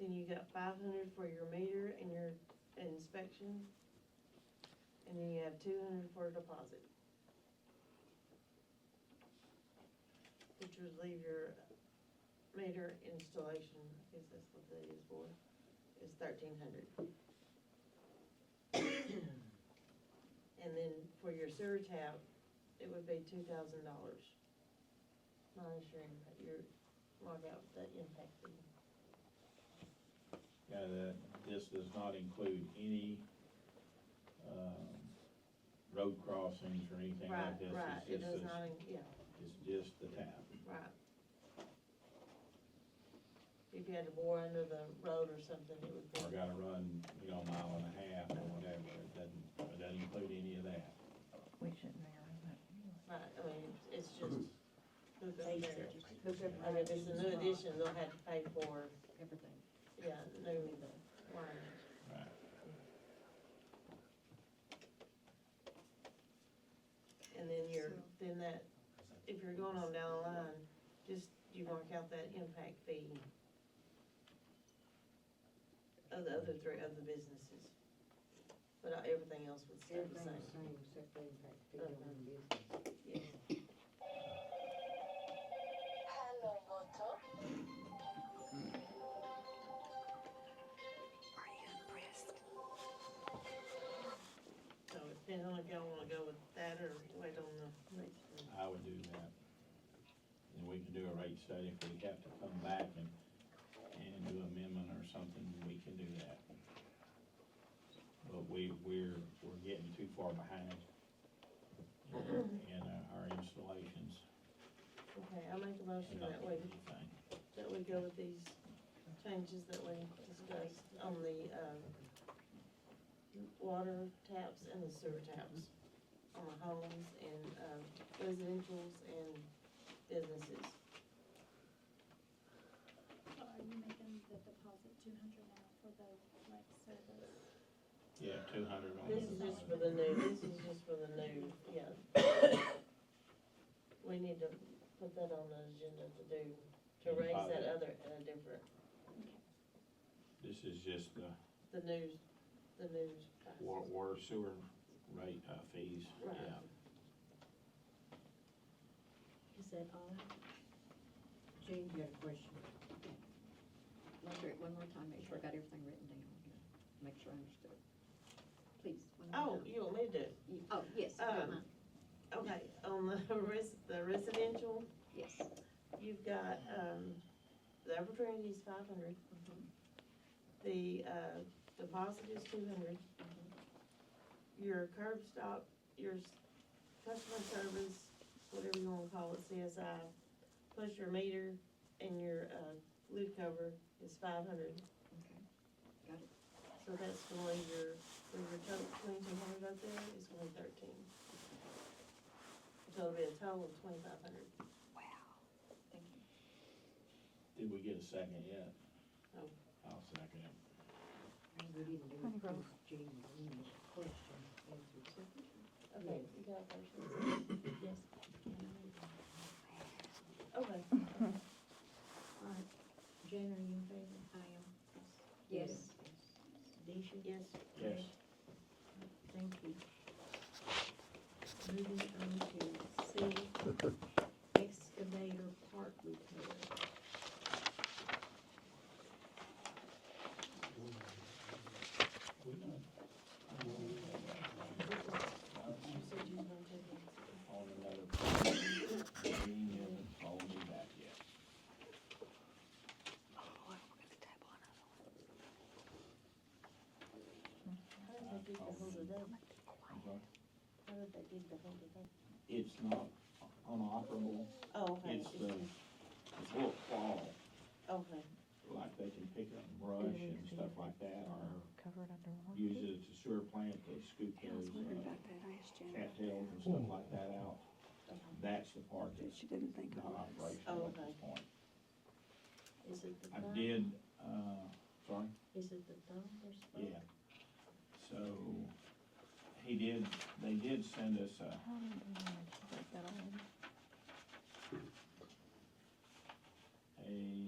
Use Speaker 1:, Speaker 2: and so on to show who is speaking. Speaker 1: then you got five hundred for your meter and your inspection. And then you have two hundred for a deposit. Which would leave your meter installation, I guess that's what that is for, is thirteen hundred. And then for your sewer tap, it would be two thousand dollars. Monitoring that your, lockout, that impacted.
Speaker 2: Yeah, that, this does not include any, um, road crossings or anything like
Speaker 1: Right,
Speaker 2: this.
Speaker 1: right, it
Speaker 2: It's just
Speaker 1: does
Speaker 2: this-
Speaker 1: not, in- yeah,
Speaker 2: It's just the tap.
Speaker 1: right. If you had to bore under the road or something, it would be,
Speaker 2: Or gotta run, you know, a mile and a half or whatever, it doesn't, it doesn't include any of that.
Speaker 3: We shouldn't really.
Speaker 1: right, I mean, it's it's just. hook up there.
Speaker 3: Everything.
Speaker 1: I mean, if it's a new addition, they'll have to pay for,
Speaker 3: Everything.
Speaker 1: yeah, new line.
Speaker 2: Right.
Speaker 1: And then you're, then that, if you're going on down the line, just, you mark out that impact fee of the other three, other businesses. But uh, everything else would stay the same.
Speaker 4: Everything's same, except they impact fee on
Speaker 1: Uh-huh.
Speaker 4: one business.
Speaker 1: Yeah.
Speaker 5: Hello, Moto.
Speaker 3: Are you impressed?
Speaker 1: So it depends on if y'all wanna go with that or wait on the next one.
Speaker 2: I would do that. And we can do a rate study if we have to come back and, and do amendment or something, we can do that. But we, we're, we're getting too far behind in in uh, our installations
Speaker 1: Okay, I make a motion
Speaker 2: and not
Speaker 1: that way.
Speaker 2: anything.
Speaker 1: that we go with these changes that we discussed on the, um, water taps and the sewer taps on the homes and, um, residential's and businesses.
Speaker 6: So Are you making the deposit two hundred now for the like service?
Speaker 2: Yeah, two hundred on
Speaker 1: This is
Speaker 2: the
Speaker 1: just for the new, this is just for the new, yeah. We need to put that on the agenda to do, to raise that other, at a different,
Speaker 2: This is just the
Speaker 1: the news, the news.
Speaker 2: wa- water sewer rate uh, fees,
Speaker 1: Right.
Speaker 2: yeah.
Speaker 3: Is that all?
Speaker 4: Gene, you got a question?
Speaker 3: Look through it one more time, make sure I got everything written down, make sure I understood. Please, one more
Speaker 1: Oh,
Speaker 3: time.
Speaker 1: you want me to do it?
Speaker 3: You- Oh, yes,
Speaker 1: Um,
Speaker 3: never mind.
Speaker 1: Okay, on the res, the residential,
Speaker 3: yes.
Speaker 1: you've got, um, the opportunity is five hundred,
Speaker 3: Mhm.
Speaker 1: the, uh, deposit is two hundred. Your curb stop, your s- customer service, whatever you wanna call it, CSI, plus your meter and your, uh, lid cover is five hundred.
Speaker 3: Okay. Got it.
Speaker 1: So that's gonna leave your, for your total twenty-two hundred up there is one thirteen. So it'll be a total of twenty-five hundred.
Speaker 3: Wow. Thank you.
Speaker 2: Did we get a second yet?
Speaker 1: No.
Speaker 2: I'll second it.
Speaker 4: We didn't do
Speaker 3: Honey
Speaker 4: it,
Speaker 3: Grove.
Speaker 4: because Gene, you need a question, answered.
Speaker 1: Okay, you got it first. Yes. Okay,
Speaker 4: All right, Jane, are you in favor?
Speaker 3: I am.
Speaker 4: Yes. Deisha?
Speaker 1: yes,
Speaker 2: Yes.
Speaker 4: Thank you. Moving on to C, excavator park repair.
Speaker 2: We done.
Speaker 1: you said you was gonna take it.
Speaker 2: on another. Green hasn't called me back yet.
Speaker 1: How did they get the hold of them? How did they get the hold of them?
Speaker 2: It's not unoperable,
Speaker 1: Oh, okay.
Speaker 2: it's uh, the, it's a little claw,
Speaker 1: Okay,
Speaker 2: like they can pick up brush and stuff like that, or
Speaker 3: Covered under water.
Speaker 2: use it at the sewer plant to scoop
Speaker 7: I was
Speaker 2: those,
Speaker 7: wondering
Speaker 2: uh,
Speaker 7: about that, I asked Janet.
Speaker 2: cattails and stuff like that out. That's the part that's
Speaker 7: She didn't think it
Speaker 2: not
Speaker 7: was.
Speaker 1: Oh,
Speaker 2: operational at this
Speaker 1: okay.
Speaker 2: point.
Speaker 1: is it the
Speaker 2: I
Speaker 1: thumb?
Speaker 2: did, uh, sorry?
Speaker 1: Is it the thumb or something?
Speaker 2: Yeah. So, he did, they did send us a,
Speaker 3: How did they manage to break that all in?
Speaker 2: a